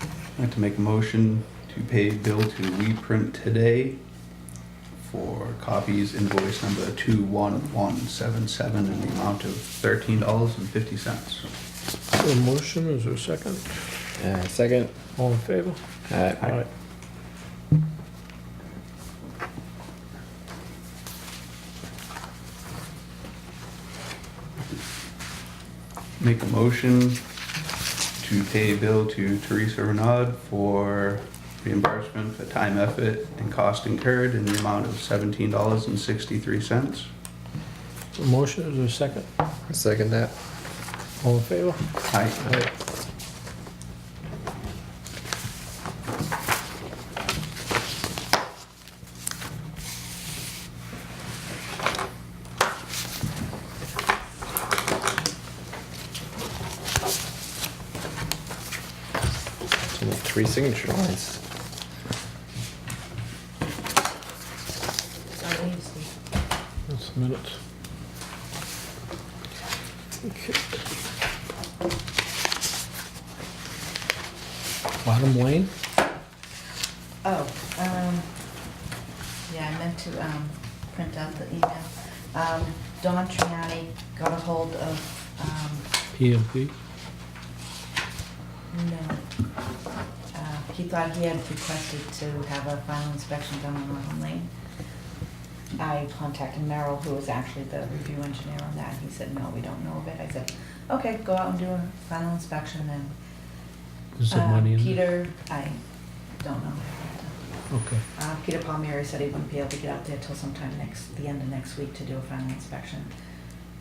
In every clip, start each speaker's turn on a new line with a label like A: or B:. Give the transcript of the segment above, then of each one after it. A: I'd like to make a motion to pay bill to WePrint today for copies invoice number 21177 in the amount of $13.50.
B: A motion, is there a second?
C: Uh, second.
B: All in favor?
C: Uh,
A: Aye. Make a motion to pay bill to Teresa Renaud for reimbursement for time, effort, and cost incurred in the amount of $17.63.
B: A motion, is there a second?
C: second that.
B: All in favor?
A: Aye.
B: Aye.
C: It's only three signature lines.
D: I need to see.
B: That's the minutes. Okay. Bottom lane?
D: Oh, um, yeah, I meant to, um, print out the email. Um, Don Triani got a hold of, um,
B: PMP.
D: no. Uh, He thought he had requested to have a final inspection done on Rotten Lane. I contacted Merrill, who was actually the review engineer on that. He said, no, we don't know of it. I said, okay, go out and do a final inspection and.
B: Is there
D: uh,
B: money in there?
D: Peter, I don't know.
B: Okay.
D: Uh, Peter Palmieri said he wouldn't be able to get out there till sometime next, the end of next week to do a final inspection.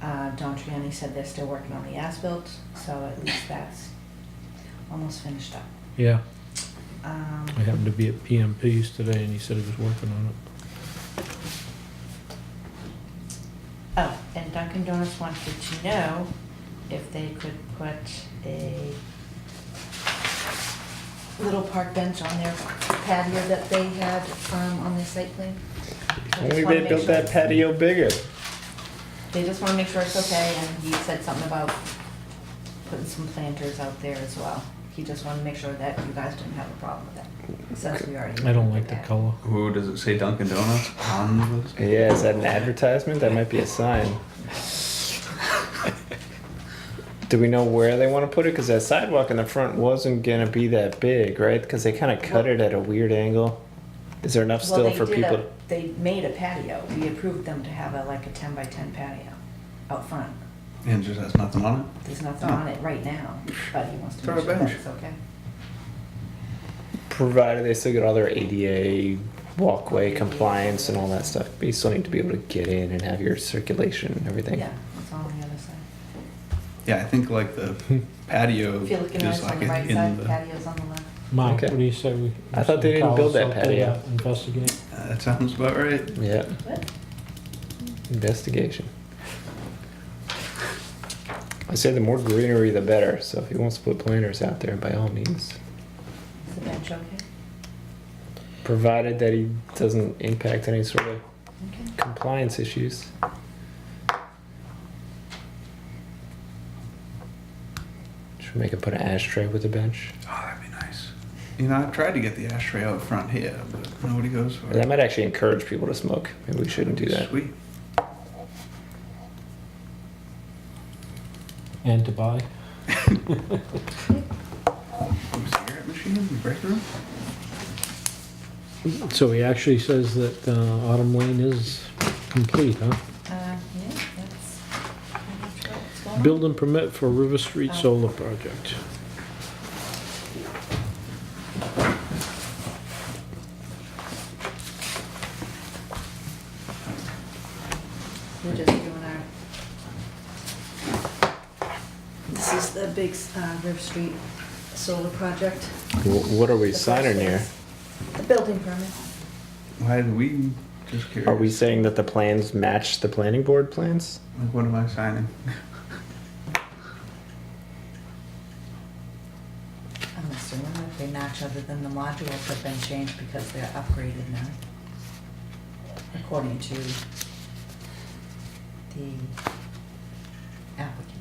D: Uh, Don Triani said they're still working on the as-built, so at least that's almost finished up.
B: Yeah,
D: Um,
B: I happened to be at PMP's today and he said he was working on it.
D: Oh, and Dunkin' Donuts wanted to know if they could put a little park bench on their patio that they had, um, on their site plan. I just
C: Only
D: wanna
C: they
D: make
C: built
D: sure-
C: that patio bigger.
D: They just wanna make sure it's okay, and he said something about putting some planters out there as well. He just wanted to make sure that you guys didn't have a problem with it, since we already.
B: I don't like the
D: did that.
B: color.
A: Who does it say Dunkin' Donuts on this?
C: Yeah, is that an advertisement? That might be a sign. Do we know where they want to put it? Because that sidewalk in the front wasn't gonna be that big, right? Because they kind of cut it at a weird angle. Is there enough
D: Well,
C: still
D: they
C: for
D: did
C: people?
D: a- They made a patio. We approved them to have a, like a ten by ten patio out front.
A: And it just has nothing on it?
D: There's nothing on it right now, but he wants to
A: Throw
D: make
A: a
D: sure
A: bench.
D: that's okay.
C: Provided they still get all their ADA walkway compliance and all that stuff, but you still need to be able to get in and have your circulation and everything.
D: Yeah, it's all on the other side.
A: Yeah, I think like the patio
D: If you're looking at
A: is
D: it on
A: like
D: the right
A: in
D: side,
A: the,
D: patio's on the left.
B: Mark,
C: Okay.
B: what do you say we?
C: I thought they didn't build that
B: Call something,
C: patio.
B: uh, Investigate.
A: that sounds about right.
C: Yeah,
D: What?
C: investigation. I say the more greenery, the better. So if he wants to put planters out there, by all means,
D: Is the bench okay?
C: provided that he doesn't impact any sort of
D: Okay.
C: compliance issues. Should we make him put an ashtray with a bench?
A: Oh, that'd be nice. You know, I've tried to get the ashtray out front here, but nobody goes for
C: That
A: it.
C: might actually encourage people to smoke. Maybe we shouldn't do that.
A: Sweet.
B: And to buy.
A: Cigarette machine in the break room?
B: So he actually says that uh, Autumn Lane is complete, huh?
D: Uh, yeah, that's, that's what's going on.
B: Building permit for River Street Solar Project.
D: We're just doing our. This is the big, uh, River Street solar project.
C: Wh- What are we
D: The first
C: signing
D: phase.
C: here?
D: The building permit.
A: Why did we, just curious.
C: Are we saying that the plans match the planning board plans?
A: Like, what am I signing?
D: I'm assuming that they match other than the modules have been changed because they're upgraded now. According to the applicant.